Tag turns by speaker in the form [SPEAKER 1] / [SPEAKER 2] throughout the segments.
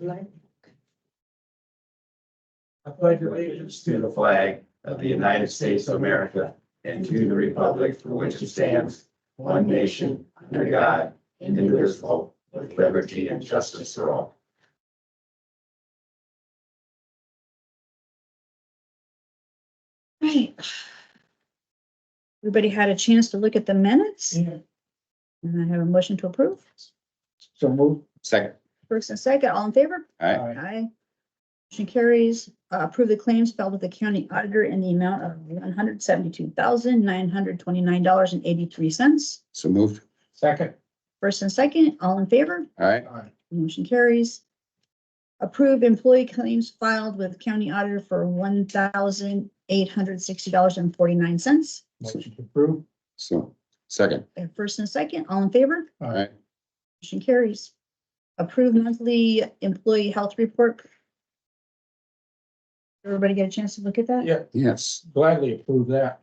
[SPEAKER 1] Like,
[SPEAKER 2] I pledge allegiance to the flag of the United States of America and to the republic for which it stands, one nation, under God, indivisible, with liberty and justice for all.
[SPEAKER 3] Right. Everybody had a chance to look at the minutes?
[SPEAKER 1] Yeah.
[SPEAKER 3] And I have a motion to approve.
[SPEAKER 1] So move.
[SPEAKER 4] Second.
[SPEAKER 3] First and second, all in favor?
[SPEAKER 4] Aye.
[SPEAKER 3] Aye. Motion carries, Uh, approve the claims filed with the county auditor in the amount of one hundred seventy-two thousand, nine hundred twenty-nine dollars and eighty-three cents.
[SPEAKER 4] So moved.
[SPEAKER 1] Second.
[SPEAKER 3] First and second, all in favor?
[SPEAKER 4] All right.
[SPEAKER 1] Aye.
[SPEAKER 3] Motion carries. Approve employee claims filed with county auditor for one thousand, eight hundred sixty dollars and forty-nine cents.
[SPEAKER 1] Motion to approve.
[SPEAKER 4] So second.
[SPEAKER 3] First and second, all in favor?
[SPEAKER 1] Aye.
[SPEAKER 4] Aye.
[SPEAKER 3] Motion carries. Approved monthly employee health report. Everybody get a chance to look at that?
[SPEAKER 1] Yeah.
[SPEAKER 4] Yes.
[SPEAKER 1] Gladly approve that.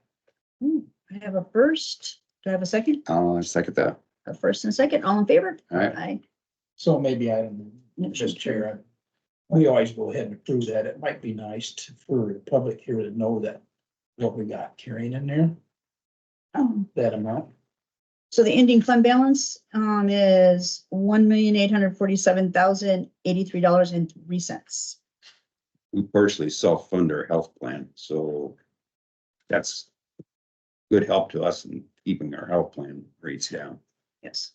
[SPEAKER 3] I have a first. Do I have a second?
[SPEAKER 4] I'll second that.
[SPEAKER 3] A first and second, all in favor?
[SPEAKER 4] All right.
[SPEAKER 3] Aye.
[SPEAKER 1] So maybe I don't,
[SPEAKER 3] Motion
[SPEAKER 1] just
[SPEAKER 3] carries.
[SPEAKER 1] chair. I- We always go ahead and approve that. It might be nice to- for the public here to know that what we got carrying in there,
[SPEAKER 3] Um,
[SPEAKER 1] that amount.
[SPEAKER 3] So the ending fund balance um is one million, eight hundred forty-seven thousand, eighty-three dollars and three cents.
[SPEAKER 4] We partially self-fund our health plan, so that's good help to us in keeping our health plan rates down.
[SPEAKER 3] Yes.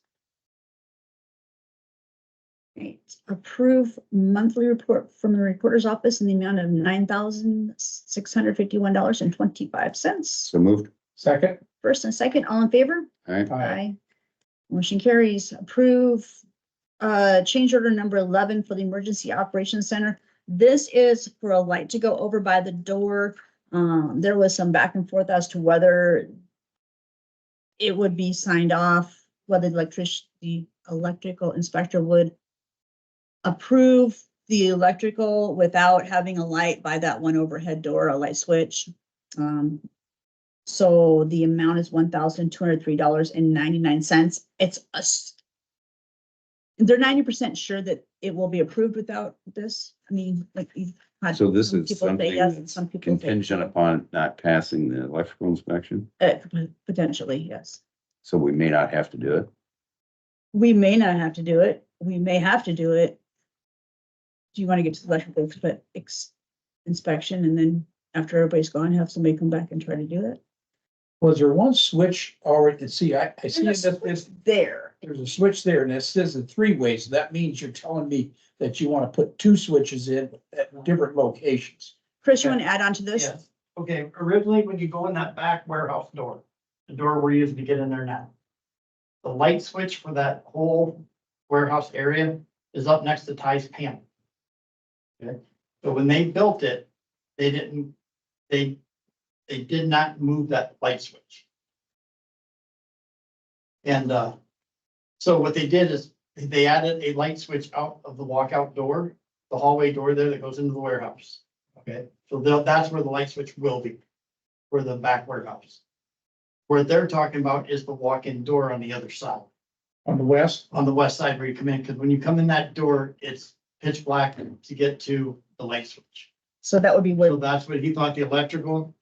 [SPEAKER 3] Right, approve monthly report from the recorder's office in the amount of nine thousand six hundred fifty-one dollars and twenty-five cents.
[SPEAKER 4] So moved.
[SPEAKER 1] Second.
[SPEAKER 3] First and second, all in favor?
[SPEAKER 4] All right.
[SPEAKER 1] Aye.
[SPEAKER 3] Motion carries, approve, uh, change order number eleven for the Emergency Operations Center. This is for a light to go over by the door. Um, there was some back and forth as to whether it would be signed off, whether the electric, the electrical inspector would approve the electrical without having a light by that one overhead door, a light switch. Um, so the amount is one thousand two hundred three dollars and ninety-nine cents. It's a s- They're ninety percent sure that it will be approved without this. I mean, like. you've had
[SPEAKER 4] So this
[SPEAKER 3] some
[SPEAKER 4] is
[SPEAKER 3] people say
[SPEAKER 4] something
[SPEAKER 3] yes and
[SPEAKER 4] that's
[SPEAKER 3] some people say
[SPEAKER 4] Contingent upon not passing the electrical inspection,
[SPEAKER 3] Uh, pot- potentially, yes.
[SPEAKER 4] so we may not have to do it.
[SPEAKER 3] We may not have to do it. We may have to do it. Do you want to get to the electrical expe- ex- inspection and then after everybody's gone, have somebody come back and try to do it?
[SPEAKER 1] Was there one switch already? See, I, I see
[SPEAKER 3] There's
[SPEAKER 1] this,
[SPEAKER 3] a
[SPEAKER 1] this,
[SPEAKER 3] There.
[SPEAKER 1] there's a switch there and it says in three ways. That means you're telling me that you want to put two switches in at different locations.
[SPEAKER 3] Chris, you want to add on to this?
[SPEAKER 5] Yes, okay, originally, when you go in that back warehouse door, the door we're using to get in there now. The light switch for that whole warehouse area is up next to Ty's panel. Okay, so when they built it, they didn't, they, they did not move that light switch. And, uh, so what they did is, they added a light switch out of the walkout door, the hallway door there that goes into the warehouse. Okay, so they'll, that's where the light switch will be, for the back warehouse. What they're talking about is the walk-in door on the other side,
[SPEAKER 1] On the west,
[SPEAKER 5] on the west side where you come in, because when you come in that door, it's pitch black to get to the light switch.
[SPEAKER 3] So that would be where,
[SPEAKER 5] So that's what he thought the electrical.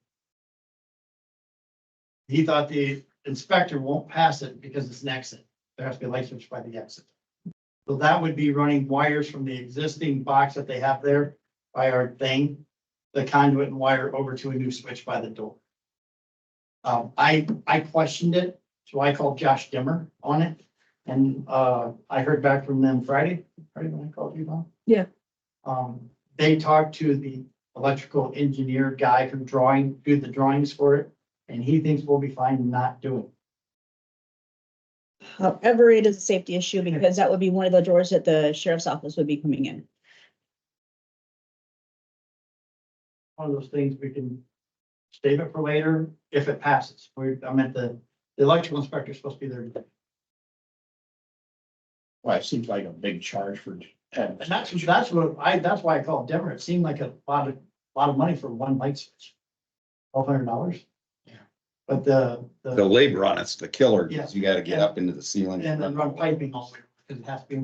[SPEAKER 5] He thought the inspector won't pass it because it's an exit. There has to be a light switch by the exit. So that would be running wires from the existing box that they have there by our thing, the conduit and wire over to a new switch by the door. Um, I, I questioned it, so I called Josh Dimmer on it. And, uh, I heard back from them Friday, Friday when I called you, Bob?
[SPEAKER 3] Yeah.
[SPEAKER 5] Um, they talked to the electrical engineer guy from drawing, do the drawings for it, and he thinks we'll be fine not doing.
[SPEAKER 3] however, it is a safety issue because that would be one of the doors that the sheriff's office would be coming in.
[SPEAKER 5] One of those things we can save it for later if it passes. We're, I meant the, the electrical inspector's supposed to be there. today.
[SPEAKER 1] well, it seems like a big charge for. having-
[SPEAKER 5] And that's, that's what I, that's why I called Denver. It seemed like a lot of, lot of money for one light switch. Twelve hundred dollars.
[SPEAKER 1] Yeah.
[SPEAKER 5] But the,
[SPEAKER 4] The
[SPEAKER 5] the,
[SPEAKER 4] labor on it's the killer,
[SPEAKER 5] Yeah.
[SPEAKER 4] because you gotta get up into the ceiling.
[SPEAKER 5] and then run piping all the way, because it has to be